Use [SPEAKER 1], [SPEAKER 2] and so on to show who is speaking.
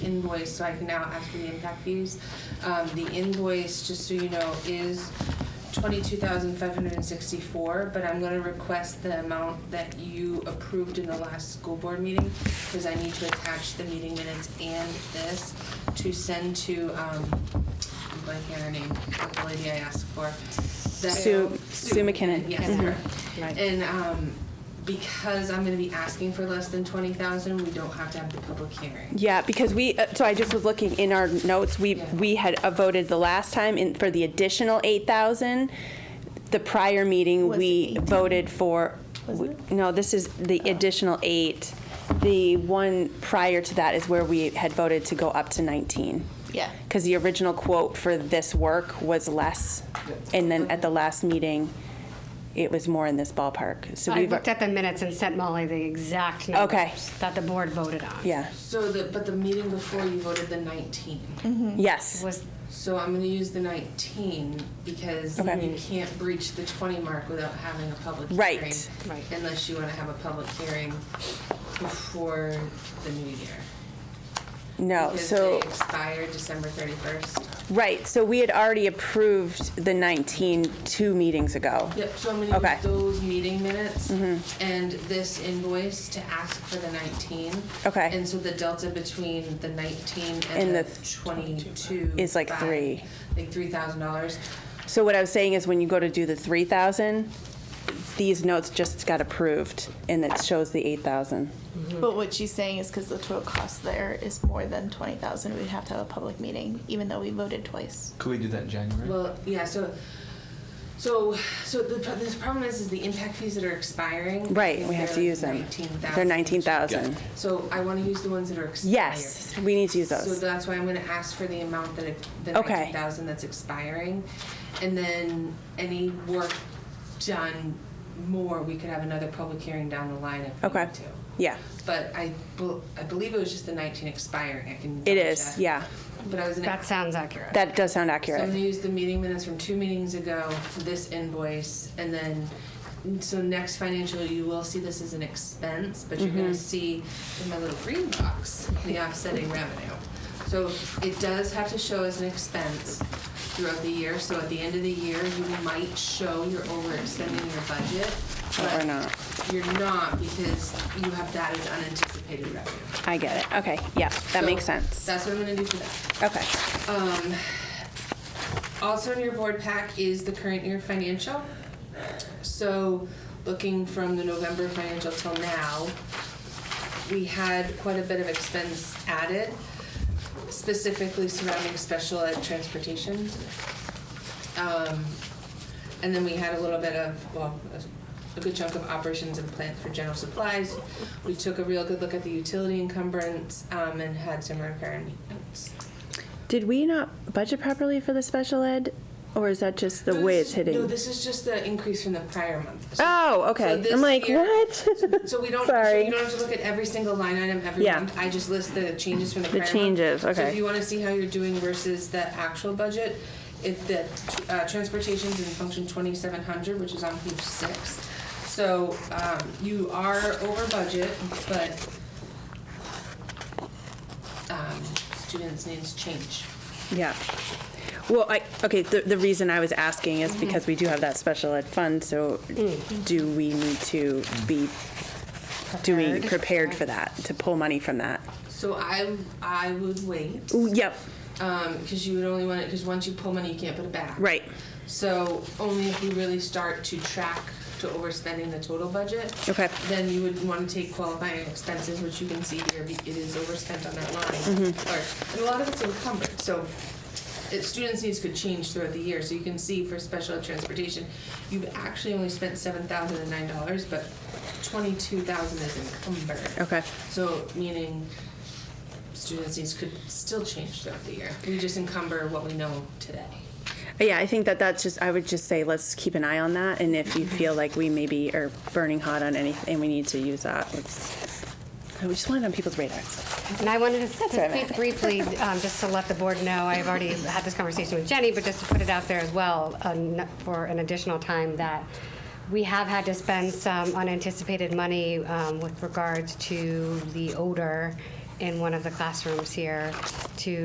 [SPEAKER 1] invoice, so I can now ask for the impact fees. Um, the invoice, just so you know, is twenty-two thousand five hundred and sixty-four, but I'm gonna request the amount that you approved in the last school board meeting, because I need to attach the meeting minutes and this to send to, um, I'm blanking on her name, the lady I asked for. The-
[SPEAKER 2] Sue- Sue McKinnon.
[SPEAKER 1] Yes,
[SPEAKER 2] Mhm.
[SPEAKER 1] her.
[SPEAKER 3] Right.
[SPEAKER 1] And, um, because I'm gonna be asking for less than twenty thousand, we don't have to have the public hearing.
[SPEAKER 2] Yeah, because we, uh, so I just was looking in our notes, we,
[SPEAKER 1] Yeah.
[SPEAKER 2] we had uh, voted the last time in, for the additional eight thousand. The prior meeting,
[SPEAKER 4] Was
[SPEAKER 2] we
[SPEAKER 4] it 18?
[SPEAKER 2] voted for, w- no, this is the additional eight. The one prior to that is where we had voted to go up to nineteen.
[SPEAKER 4] Yeah.
[SPEAKER 2] Because the original quote for this work was less, and then at the last meeting, it was more in this ballpark, so
[SPEAKER 3] I
[SPEAKER 2] we've,
[SPEAKER 3] looked at the minutes and sent Molly the exact
[SPEAKER 2] Okay.
[SPEAKER 3] numbers that the board voted on.
[SPEAKER 2] yeah,
[SPEAKER 1] So the, but the meeting before you voted the nineteen.
[SPEAKER 2] yes,
[SPEAKER 3] Was,
[SPEAKER 1] So I'm gonna use the nineteen because
[SPEAKER 2] Okay.
[SPEAKER 1] you can't breach the twenty mark without having a public
[SPEAKER 2] Right.
[SPEAKER 1] hearing.
[SPEAKER 3] Right.
[SPEAKER 1] Unless you wanna have a public hearing before the new year.
[SPEAKER 2] no,
[SPEAKER 1] Because
[SPEAKER 2] Oh, so.
[SPEAKER 1] they expire December thirty-first.
[SPEAKER 2] Right, so we had already approved the 19 two meetings ago.
[SPEAKER 1] Yep, so I'm gonna
[SPEAKER 2] Okay. Mm-hmm.
[SPEAKER 1] use those meeting minutes and this invoice to ask for the nineteen.
[SPEAKER 2] Okay.
[SPEAKER 1] And so the delta between the nineteen and
[SPEAKER 2] And
[SPEAKER 1] the
[SPEAKER 2] the th-
[SPEAKER 1] twenty-two.
[SPEAKER 2] Is like
[SPEAKER 1] by,
[SPEAKER 2] three.
[SPEAKER 1] Like three thousand dollars.
[SPEAKER 2] So what I was saying is when you go to do the 3,000, these notes just got approved, and it shows the 8,000.
[SPEAKER 4] But what she's saying is because the total cost there is more than twenty thousand, we'd have to have a public meeting, even though we voted twice.
[SPEAKER 5] Could we do that in January?
[SPEAKER 1] Well, yeah, so, so, so the, pro- the problem is, is the impact fees that are expiring.
[SPEAKER 2] Right, we have to use them. They're 19,000.
[SPEAKER 1] So I wanna use the ones that are expired.
[SPEAKER 2] Yes, we need to use
[SPEAKER 1] So
[SPEAKER 2] those.
[SPEAKER 1] that's why I'm gonna ask for the amount that, it- the
[SPEAKER 2] Okay.
[SPEAKER 1] nineteen thousand that's expiring. And then any work done more, we could have another public hearing down the line if we
[SPEAKER 2] Okay.
[SPEAKER 1] need to.
[SPEAKER 2] Yeah,
[SPEAKER 1] But I, bel- I believe it was just the nineteen expiring, I can.
[SPEAKER 2] it
[SPEAKER 1] double
[SPEAKER 2] is,
[SPEAKER 1] check.
[SPEAKER 2] yeah.
[SPEAKER 1] But I was gonna
[SPEAKER 3] that sounds accurate.
[SPEAKER 2] That does sound
[SPEAKER 1] so I'm gonna
[SPEAKER 2] accurate.
[SPEAKER 1] use the meeting minutes from two meetings ago, this invoice, and then, so next financial, you will see this as an expense, but you're
[SPEAKER 2] Mm-hmm.
[SPEAKER 1] gonna see in my little green box, the offsetting revenue. So it does have to show as an expense throughout the year, so at the end of the year, you might show you're overextending your budget.
[SPEAKER 2] But
[SPEAKER 1] but
[SPEAKER 2] we're not.
[SPEAKER 1] You're not, because you have that as unanticipated revenue.
[SPEAKER 2] I get it, okay, yeah, that
[SPEAKER 1] So
[SPEAKER 2] makes sense.
[SPEAKER 1] That's what I'm gonna do for that.
[SPEAKER 2] Okay,
[SPEAKER 1] Um, Also in your board pack is the current year financial. So looking from the November financial till now, we had quite a bit of expense added, specifically surrounding special ed transportation. Um, and then we had a little bit of, well, a- a good chunk of operations and plant for general supplies. We took a real good look at the utility encumbrance, um, and had some repair and maintenance.
[SPEAKER 2] did we not budget properly for the special ed, or is that just the
[SPEAKER 1] No,
[SPEAKER 2] way
[SPEAKER 1] this is-
[SPEAKER 2] it's
[SPEAKER 1] No,
[SPEAKER 2] hitting?
[SPEAKER 1] this is just the increase from the prior month. So-
[SPEAKER 2] Oh,
[SPEAKER 1] so
[SPEAKER 2] okay,
[SPEAKER 1] this
[SPEAKER 2] I'm like,
[SPEAKER 1] year-
[SPEAKER 2] what?
[SPEAKER 1] So we don't, so
[SPEAKER 2] Sorry.
[SPEAKER 1] you don't have to look at every single line item every
[SPEAKER 2] Yeah.
[SPEAKER 1] month. I just list the changes from the
[SPEAKER 2] The
[SPEAKER 1] prior month.
[SPEAKER 2] changes,
[SPEAKER 1] So if
[SPEAKER 2] okay.
[SPEAKER 1] you want to see how you're doing versus the actual budget, it, the, uh, transportation's in function twenty-seven hundred, which is on page six. So, um, you are over budget, but, um, students' needs change.
[SPEAKER 2] Yeah. Well, I, okay, the, the reason I was asking is because we do have that special ed fund, so do we need to be doing, prepared for that, to pull money from that?
[SPEAKER 1] So I, I would wait.
[SPEAKER 2] Ooh, Yep,
[SPEAKER 1] Um, 'cause because you would only want it because once you pull money, you can't put it back.
[SPEAKER 2] right,
[SPEAKER 1] So only if you really start to track to overspending the total budget,
[SPEAKER 2] okay,
[SPEAKER 1] then you would want to take qualifying expenses, which you can see here, be- it is overspent on that line.
[SPEAKER 2] Mm-hmm.
[SPEAKER 1] Or, and a lot of it's encumbered, so it, students' needs could change throughout the year. So you can see for special ed transportation, you've actually only spent seven thousand and nine dollars, but twenty-two thousand is encumbered.
[SPEAKER 2] okay,
[SPEAKER 1] So, meaning students' needs could still change throughout the year. We just encumber what we know today.
[SPEAKER 2] yeah, I think that that's just, I would just say, let's keep an eye on that, and if you feel like we maybe are burning hot on anything, we need to use that, let's, we just want it on people's radars.
[SPEAKER 3] And I wanted to
[SPEAKER 2] what I
[SPEAKER 3] speak
[SPEAKER 2] meant.
[SPEAKER 3] briefly, um, just to let the board know, I've already had this conversation with Jenny, but just to put it out there as well, um, for an additional time, that we have had to spend some unanticipated money um, with regards to the odor in one of the classrooms here to